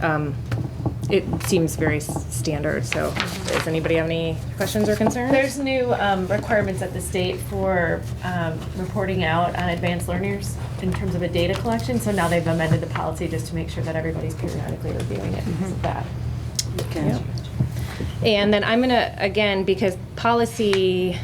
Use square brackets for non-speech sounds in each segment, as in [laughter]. um, it seems very s- standard, so does anybody have any questions or concerns? There's new um, requirements at the state for um, reporting out on advanced learners in terms of a data collection, so now they've amended the policy just to make sure that everybody's periodically reviewing it Mm-hmm. because of that. Yep. And then I'm gonna, again, because policy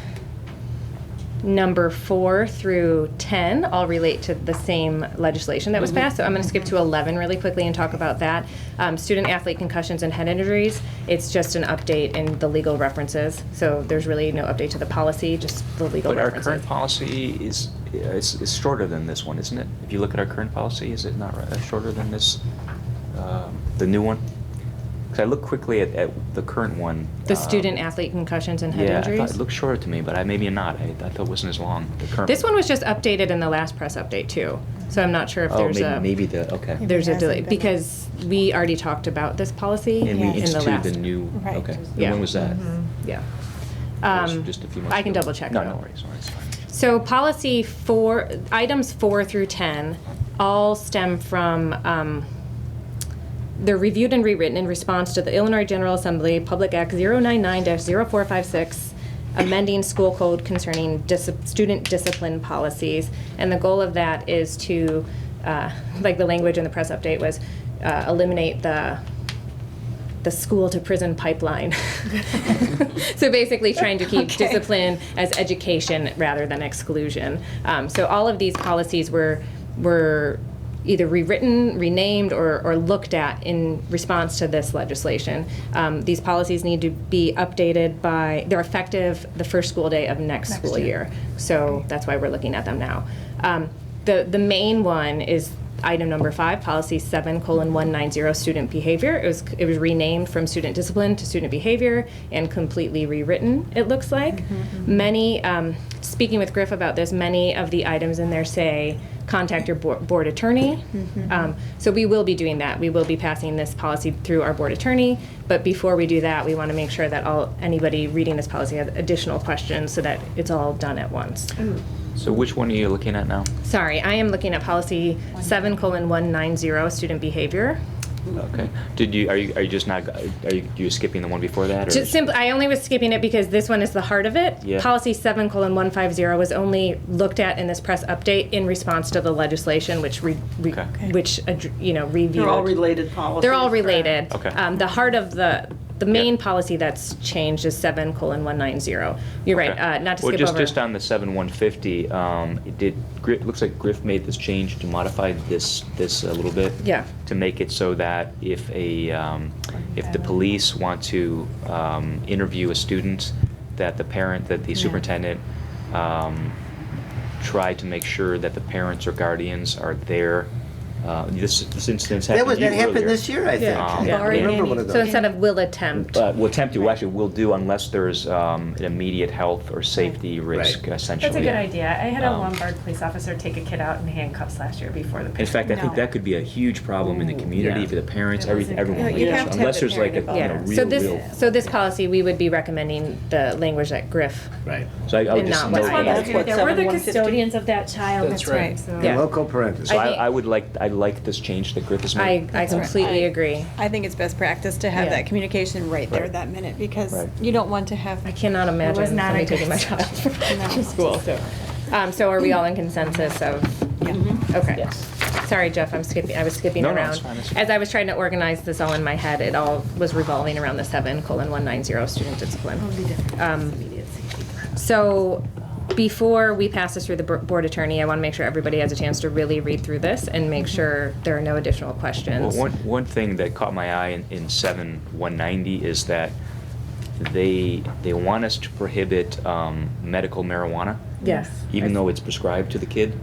number four through 10 all relate to the same legislation that was passed, so I'm gonna skip to 11 really quickly and talk about that. Um, Student athlete concussions and head injuries, it's just an update in the legal references, so there's really no update to the policy, just the legal But our references. current policy is, is, is shorter than this one, isn't it? If you look at our current policy, is it not uh, shorter than this, um, the new one? Because I looked quickly at, at the current one. The um, student athlete concussions and head Yeah, I injuries? thought it looked shorter to me, but I, maybe not. I, I thought it wasn't as long, the current. This one was just updated in the last press update too, so I'm not sure if Oh, there's maybe, a. maybe the, okay. Maybe There's a hasn't delay, been because we already talked about this policy And we Yes. in the instituted last. the new, Right. okay. And Yeah. When was that? Yeah. That was Um, Just a few months ago. I can double check No, though. no worries, all right, it's fine. So policy four, items four through 10 all stem from, um, they're reviewed and rewritten in response to the Illinois General Assembly Public Act 099-0456, amending school code concerning dis- student discipline policies. And the goal of that is to, uh, like the language in the press update was, uh, eliminate the, the school to prison pipeline. [laughs] so basically, trying to keep [laughs] Okay. discipline as education rather than exclusion. Um, so all of these policies were were either rewritten, renamed, or, or looked at in response to this legislation. Um, these policies need to be updated by they're effective the first school day of next, Next school year. year. So that's why we're looking at them now. Um, the, the main one is item number five, policy seven colon one nine zero, student behavior. It was, it was renamed from student discipline to student behavior and completely rewritten, it looks like. Many, um, speaking with Griff about this, many of the items in there say, contact your board, board attorney. Um, so we will be doing that. We will be passing this policy through our board attorney. But before we do that, we want to make sure that all anybody reading this policy has additional questions so that it's all done at once. So which one are you looking at now? Sorry, I am looking at policy seven colon one nine zero, student behavior. Okay. Did you, are you, are you just not, are you, you skipping the one before that? or Just is- simply, I only was skipping it because this one is the heart of it. Yeah. Policy seven colon one five zero was only looked at in this press update in response to the legislation, which re, re- Okay. which ad- you know reviewed. They're all related policies. They're all related. Okay. Um, the heart of the, the main Yeah. policy that's changed is seven colon one nine zero. You're right, Okay. uh, not to well, skip just over. just on the seven one fifty, um, it did Griff, looks like Griff made this change to modify this this a little bit. Yeah. To make it so that if a um, if the police want to um, interview a student, that the parent that the Yeah. superintendent um, try to make sure that the parents or guardians are there. Uh, this this instance happened. That was, to you that happened earlier. this year, I think. Um, I Yeah. Barring remember one of So those. instead of will attempt, Uh, will attempt to, actually, will do unless there's um, an immediate health or safety Right. risk, That's a essentially. That's a good idea. I had a Um, Lombard police officer take a kid out in handcuffs last year before the. In fact, I think that could be a huge problem in the community Yeah. for the parents, It every, wasn't- everyone. Yeah, like you'd that. have to have Unless the there's like a, you parent know, yeah. involved. So real, real. this, so this policy, we would be recommending the language that Griff, Right. So I I would and just not note what's that. on That's what We're the 7150 custodians of that child. That's right. Yeah. So- The local parentheses. So I I, think- I would like, I like this change that Griff has I, made. I completely I- agree. I think it's best practice to have Yeah. that communication right there Right. that minute because Right. you don't want to have. I cannot imagine was not somebody a taking my good child [laughs] No. from school, so. Um, so are we all in consensus of, Yeah. okay. Yes. Sorry, Jeff, I'm skipping, I was skipping No, around. no, it's fine, it's fine. As I was trying to organize this all in my head, it all was revolving around the seven colon one nine zero student discipline. Um, So before we pass this through the bo- board attorney, I want to make sure everybody has a chance to really read through this and make sure there are no additional Well, questions. one, one thing that caught my eye in, in seven one ninety is that they, they want us to prohibit um, medical marijuana. Yes. even though it's prescribed to the kid.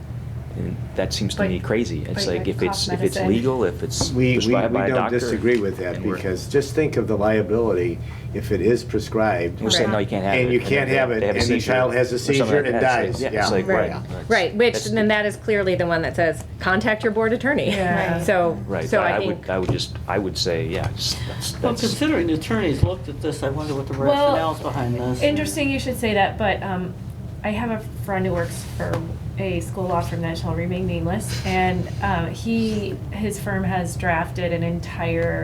And that seems to But- me crazy. It's but like like if it's, cough if it's medicine. legal, if it's We, we, we prescribed by a don't doctor. disagree with that and we're- because just think of the liability if it is prescribed. We're saying, no, you can't have it. And you then can't they- have it, they have a and the seizure child has a or something seizure like and that. dies. It's like- Yeah. It's like, Right. right. that's- Right, which, that's- then that is clearly the one that says, contact your board attorney. Yeah. Right. So, Right, so but I I would, think, I would just, I would say, yeah, just- that's, Well, that's. considering the attorneys looked at this, I wonder what the Well, rationale's behind this. Interesting you should say that, but um, I have a friend who works for a school law firm uh, that shall remain nameless, and um, he, his firm has drafted an entire